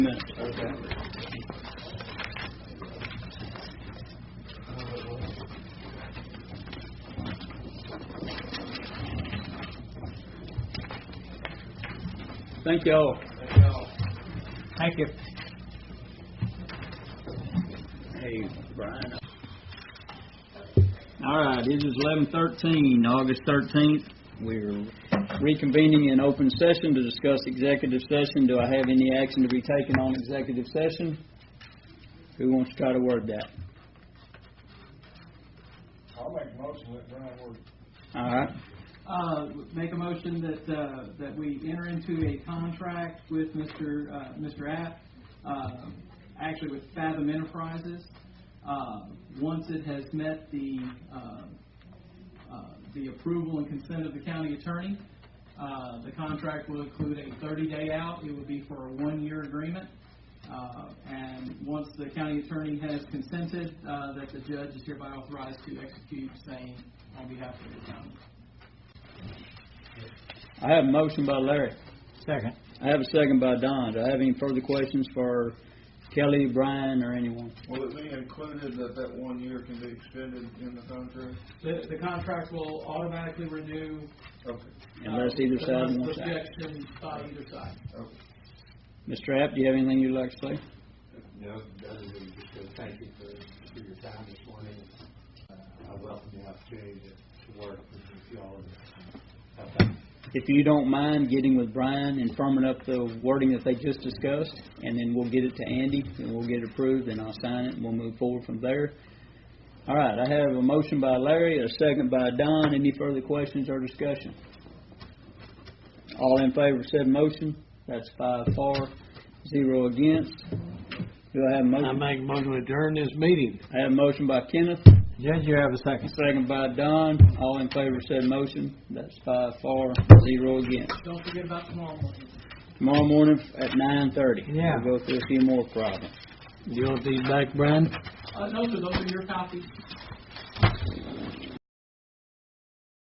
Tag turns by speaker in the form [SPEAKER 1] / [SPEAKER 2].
[SPEAKER 1] minutes. Thank you all. Thank you. Hey, Brian. All right, it is eleven thirteen, August thirteenth. We're reconvening in open session to discuss executive session. Do I have any action to be taken on executive session? Who wants to try to word that?
[SPEAKER 2] I'll make a motion that Brian Ward.
[SPEAKER 1] All right,
[SPEAKER 3] Uh, make a motion that, uh, that we enter into a contract with Mr., uh, Mr. App, uh, actually with Fathom Enterprises. Uh, once it has met the, uh, uh, the approval and consent of the county attorney, uh, the contract will include a thirty-day out. It will be for a one-year agreement. Uh, and once the county attorney has consented, uh, that the judge is hereby authorized to execute same on behalf of the county.
[SPEAKER 1] I have a motion by Larry.
[SPEAKER 4] Second.
[SPEAKER 1] I have a second by Don. Do I have any further questions for Kelly, Brian, or anyone?
[SPEAKER 2] Will it be included that that one year can be extended in the contract?
[SPEAKER 3] The, the contract will automatically renew.
[SPEAKER 2] Okay,
[SPEAKER 1] Unless either
[SPEAKER 3] uh,
[SPEAKER 1] side
[SPEAKER 3] unless
[SPEAKER 1] wants to.
[SPEAKER 3] Objection by either side.
[SPEAKER 2] okay.
[SPEAKER 1] Mr. App, do you have anything you'd like to say?
[SPEAKER 5] No, other than just to thank you for, for your time this morning. Uh, I welcome the opportunity to, to work with you all. I thank
[SPEAKER 1] If you don't mind getting with Brian and firming up the wording that they just discussed, and then we'll get it to Andy, and we'll get it approved, and I'll sign it, and we'll move forward from there. All right, I have a motion by Larry, a second by Don. Any further questions or discussion? All in favor of said motion? That's five for, zero against. Do I have a
[SPEAKER 4] I
[SPEAKER 1] motion?
[SPEAKER 4] make a motion to adjourn this meeting.
[SPEAKER 1] I have a motion by Kenneth,
[SPEAKER 4] Judge, you have a second.
[SPEAKER 1] second by Don. All in favor of said motion? That's five for, zero against.
[SPEAKER 3] Don't forget about tomorrow morning.
[SPEAKER 1] Tomorrow morning at nine thirty.
[SPEAKER 4] Yeah.
[SPEAKER 1] We'll go through a few more problems.
[SPEAKER 4] You want these back, Brian?
[SPEAKER 3] Uh, no, sir, those are your copies.